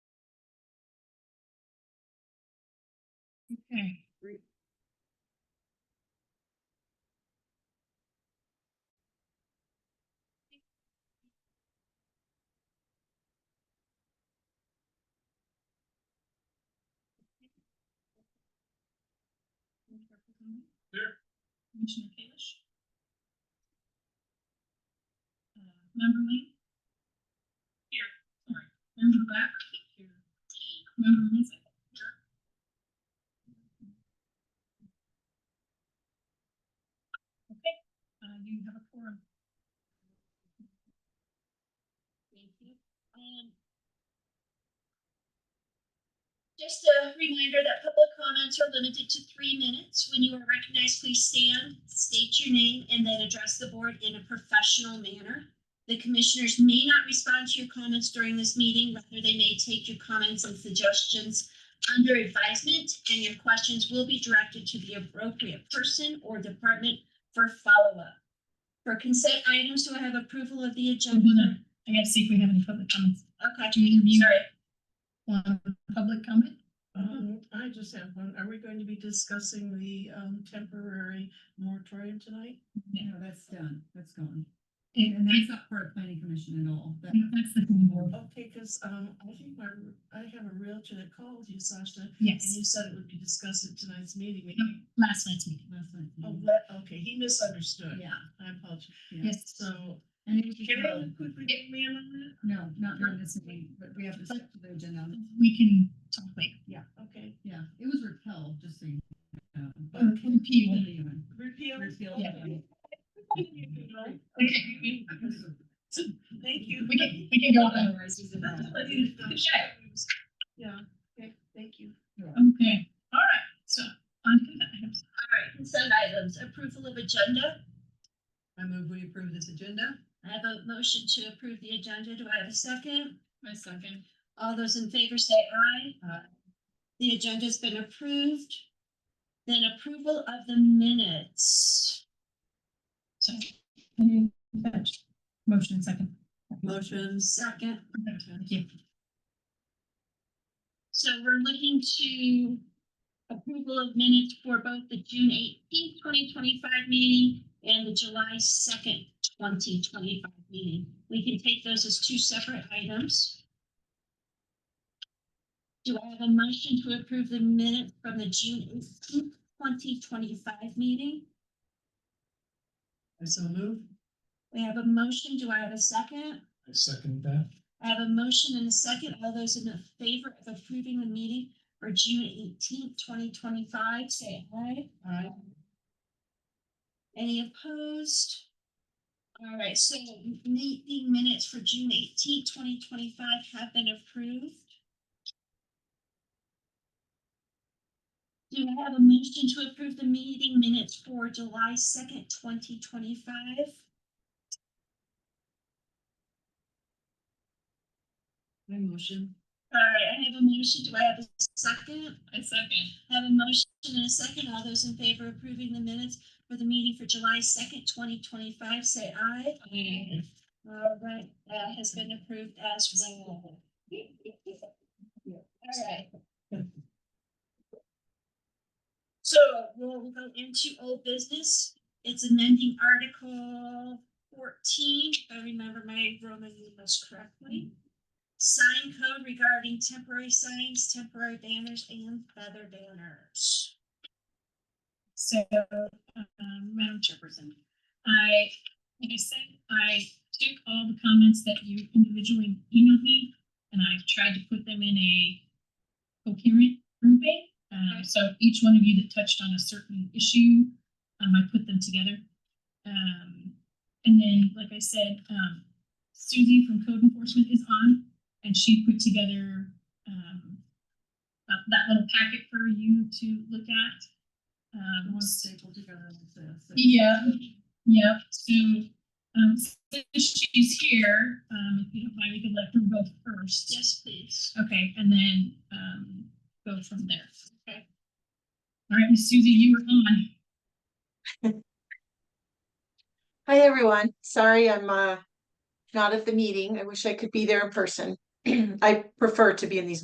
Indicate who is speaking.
Speaker 1: Okay.
Speaker 2: Here.
Speaker 1: Commissioner Kalish. Uh, Member Lee. Here, sorry. Member Black. Here. Member Lindsay. Here. Okay, uh, you have a forum. Thank you. Um,
Speaker 3: Just a reminder that public comments are limited to three minutes. When you are recognized, please stand, state your name, and then address the board in a professional manner. The commissioners may not respond to your comments during this meeting, rather they may take your comments and suggestions under advisement, and your questions will be directed to the appropriate person or department for follow-up. For consent items, do I have approval of the agenda?
Speaker 1: Mhm. I gotta see if we have any public comments.
Speaker 3: Okay,
Speaker 1: Do you have you
Speaker 3: sorry.
Speaker 1: want public comment?
Speaker 4: Um, I just have one. Are we going to be discussing the um temporary moratorium tonight?
Speaker 5: No, that's done, that's gone.
Speaker 1: And
Speaker 5: And
Speaker 1: and that's,
Speaker 5: that's not part of planning commission at all. That-
Speaker 1: that's the thing, Laura.
Speaker 4: Okay, cause um, I think my, I have a realtor that called you, Sasha, and
Speaker 1: yes,
Speaker 4: you said it would be discussed at tonight's meeting.
Speaker 1: last night's meeting,
Speaker 5: that's not-
Speaker 4: Oh, what? Okay, he misunderstood.
Speaker 5: Yeah.
Speaker 4: I apologize.
Speaker 5: yeah.
Speaker 1: yes.
Speaker 4: So.
Speaker 5: And it was just,
Speaker 4: Can I
Speaker 5: um,
Speaker 4: quickly get me in on
Speaker 5: no, not during this meeting, but we have to step to the agenda.
Speaker 1: We can talk later.
Speaker 4: that? Okay,
Speaker 5: Yeah, it was repelled, just so you know.
Speaker 1: Repeal.
Speaker 4: repeal.
Speaker 5: Repeal.
Speaker 1: Yeah.
Speaker 4: Thank
Speaker 1: Okay.
Speaker 4: you.
Speaker 1: We can, we can go on.
Speaker 4: Yeah, okay, thank you.
Speaker 1: Okay, all right, so on to that.
Speaker 3: All right, consent items, approval of agenda.
Speaker 4: I move we approve this agenda.
Speaker 3: I have a motion to approve the agenda. Do I have a second?
Speaker 1: My second.
Speaker 3: All those in favor say aye.
Speaker 4: Aye.
Speaker 3: The agenda's been approved. Then approval of the minutes.
Speaker 1: So, any touch? motion and second.
Speaker 4: Motions.
Speaker 3: Second,
Speaker 1: Thank you.
Speaker 3: so we're looking to approval of minutes for both the June eighteenth, twenty twenty-five meeting and the July second, twenty twenty-five meeting. We can take those as two separate items. Do I have a motion to approve the minutes from the June eighteenth, twenty twenty-five meeting?
Speaker 4: I so move.
Speaker 3: We have a motion. Do I have a second?
Speaker 2: I second that.
Speaker 3: I have a motion and a second. All those in favor of approving the meeting for June eighteenth, twenty twenty-five, say aye.
Speaker 4: Aye.
Speaker 3: Any opposed? All right, so meeting minutes for June eighteenth, twenty twenty-five have been approved. Do I have a motion to approve the meeting minutes for July second, twenty twenty-five?
Speaker 4: My motion.
Speaker 3: All right, I have a motion. Do I have a second?
Speaker 1: My second.
Speaker 3: I have a motion and a second. All those in favor of approving the minutes for the meeting for July second, twenty twenty-five, say aye.
Speaker 1: Aye.
Speaker 3: All right, that has been approved as well. All right. So we'll go into old business. It's amending Article fourteen, if I remember my Roman numerals correctly. Sign code regarding temporary signs, temporary banners, and feather banners.
Speaker 1: So, um, Madam Chairperson, I, like I said, I took all the comments that you individually emailed me and I've tried to put them in a coherent grouping. Um, so each one of you that touched on a certain issue, um, I put them together. Um, and then, like I said, um, Susie from Code Enforcement is on and she put together, um, uh, that little packet for you to look at. Um,
Speaker 5: One staple together like this.
Speaker 1: yeah, yeah, so, um, since she's here, um, if you don't mind, we could let her go first.
Speaker 3: Yes, please.
Speaker 1: Okay, and then, um, go from there.
Speaker 3: Okay.
Speaker 1: All right, Miss Susie, you were on.
Speaker 6: Hi, everyone. Sorry, I'm uh not at the meeting. I wish I could be there in person. I prefer to be in these